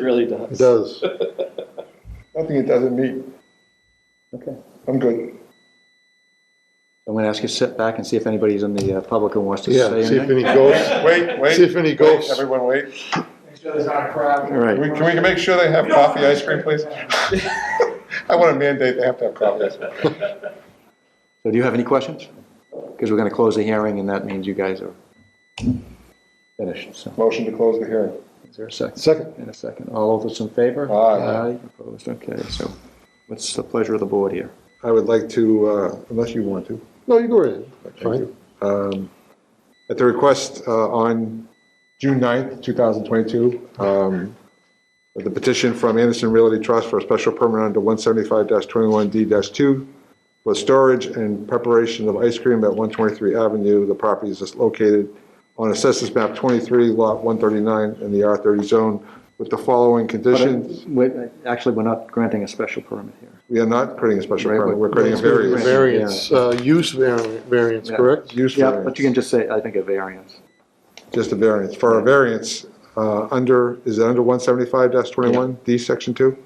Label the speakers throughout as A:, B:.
A: really
B: It
A: does.
B: does.
C: I think it doesn't meet.
D: Okay.
C: I'm good.
D: I'm going to ask you to sit back and see if anybody's in the uh, public who wants to
B: Yeah,
D: say
B: see if
D: anything.
B: any ghosts,
C: Wait, wait.
B: see if any
C: wait,
B: ghosts.
C: Everyone wait.
E: Make sure there's not a crowd.
D: All right.
C: Can we, can we make sure they have coffee ice cream, please? I want to mandate they have to have coffee ice cream.
D: So do you have any questions? Because we're going to close the hearing, and that means you guys are finished. So
C: Motion to close the hearing.
D: is there a second?
B: Second,
D: In a second. All of us in favor?
C: Aye.
D: Aye, opposed. Okay, so what's the pleasure of the board here?
B: I would like to, uh, unless you want to. No, you go ahead. Fine. Um, At the request uh, on June 9th, 2022, um, the petition from Anderson Realty Trust for a special permit under 175-21D-2 for storage and preparation of ice cream at 123 Avenue. The property is located on Assessors Map 23, Lot 139, in the R30 zone, with the following conditions.
D: uh, Wait, Actually, we're not granting a special permit here.
B: We are not creating a special
D: Right,
B: permit,
D: but-
B: we're creating a variance.
F: Variance, uh, use vari- variance,
D: Yeah.
F: correct?
B: Use
D: Yeah, but you can
B: variance,
D: just say, I think, a variance.
B: just a variance. For a variance, uh, under, is it under 175-21, D, Section 2?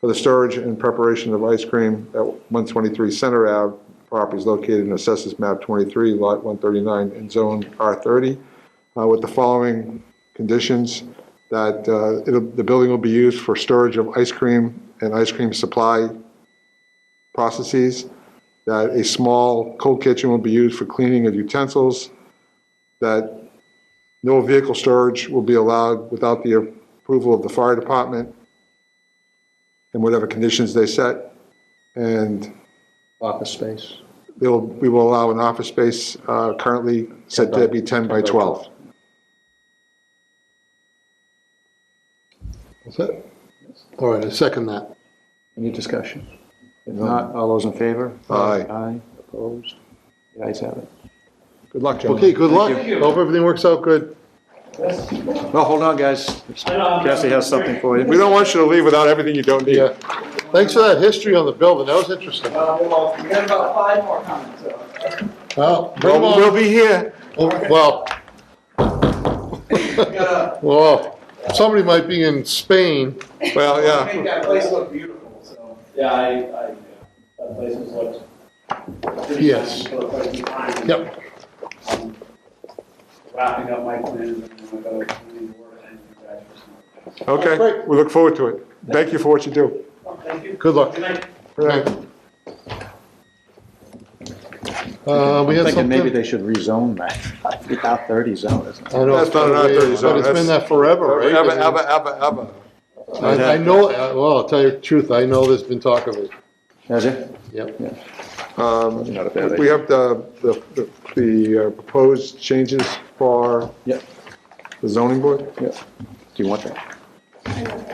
B: For the storage and preparation of ice cream at 123 Center Ave, properties located in Assessors Map 23, Lot 139, in Zone R30, uh, with the following conditions, that uh, it'll- the building will be used for storage of ice cream and ice cream supply processes, that a small cold kitchen will be used for cleaning of utensils, that no vehicle storage will be allowed without the approval of the fire department and whatever conditions they set. And
D: Office space.
B: they'll, we will allow an office space uh, currently said to be 10 by 12.
F: Is that- All right, I second that.
D: Any discussion? If not, all those in favor?
B: Aye.
D: Aye, opposed? The ayes have it.
B: Good luck, gentlemen.
F: Okay, good luck.
E: Thank you.
F: Hope everything works out good.
D: Well, hold on, guys. Cassie has something for you.
B: We don't want you to leave without everything you don't need.
F: Yeah. Thanks for that history on the building, that was interesting.
E: Well, Uh, we got about five more comments, so.
F: Well, bring
B: We'll
F: 'em
B: we'll
F: on.
B: be here.
F: Well,
E: We
F: Oh,
E: gotta
F: well, somebody might be in Spain.
B: Well,
E: make
B: yeah.
E: that place look beautiful, so.
A: Yeah, I, I, uh, that place has looked. pretty
F: Yes.
A: nice for quite some time.
F: Yep.
A: I'm Wrapping up my plans and I'm gonna go, I need to work on you guys for some.
B: Okay, we look forward to it. Thank you for what you do.
A: Oh, Thank you.
F: Good luck.
A: Good night.
B: Right.
F: Uh, we
D: I'm
F: had
D: thinking maybe
F: something.
D: they should rezone that, the R thirty zone, isn't it?
F: I know
B: That's
F: it's
B: not
F: been
B: an
F: a
B: R30
F: ways,
B: zone,
F: But it's
B: that's-
F: been that forever, right?
B: Ever,
F: I mean,
B: ever, ever, ever.
F: I I know, uh, well, I'll tell you the truth, I know there's been talk of it.
D: Has it?
F: Yep.
B: Um,
D: Not a bad
B: We have the, the, the uh, proposed changes for
D: Yep,
B: the zoning board?
D: yep. Do you want that?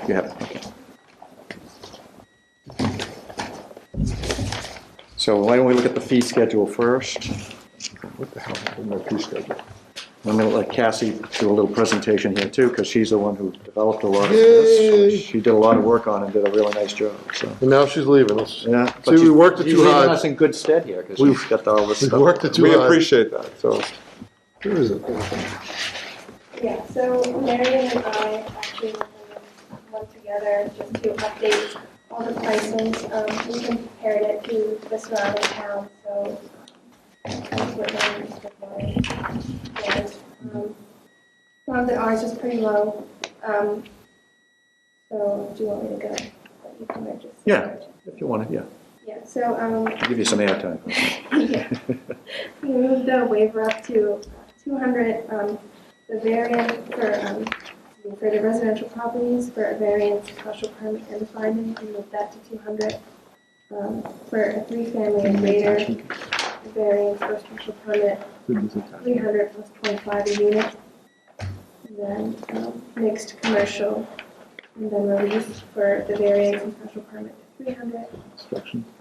D: You have it, okay. So why don't we look at the fee schedule first?
B: What the hell happened to my fee schedule?
D: I'm gonna let Cassie do a little presentation here too, because she's the one who developed a lot of this.
F: Yay.
D: She did a lot of work on it, did a really nice job, so.
F: And now she's leaving us.
D: Yeah.
F: See, we worked it
D: She's
F: too
D: leaving
F: hard.
D: us in good stead here, because
F: We-
D: she's got all this
F: We
D: stuff.
F: worked it too
B: We
F: hard.
B: appreciate that, so. Where is it?
G: Yeah, so Marion and I actually went together just to update all the prices. Um, We compared it to the surrounding towns, so that's what mine is, what mine was. Um, Found that ours was pretty low. Um, So do you want me to go? But you can register.
D: Yeah. If you want it, yeah,
G: Yeah, so um,
D: give you some airtime.
G: yeah. We moved the waiver up to 200, um, the variance for, um, for the residential properties, for a variance, special permit, and a finding, we moved that to 200. Um, For a three-family and greater, the variance for special permit, 300 plus 25 a unit. And then um, mixed commercial, and then release for the variance and special permit, 300.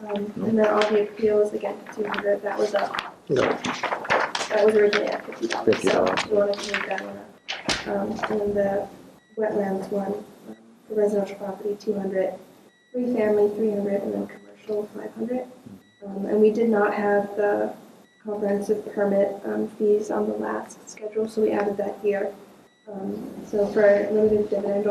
G: Um, And then all the appeals, again, two hundred, that was up.
F: Yeah.
G: That was originally at fifty dollars, so
D: $50.
G: you wanted to move that one up. Um, And then the wetlands one, the residential property, two hundred, three family, three hundred, and then commercial, five hundred. Um, And we did not have the comprehensive permit um, fees on the last schedule, so we added that here. Um, So for limited dividend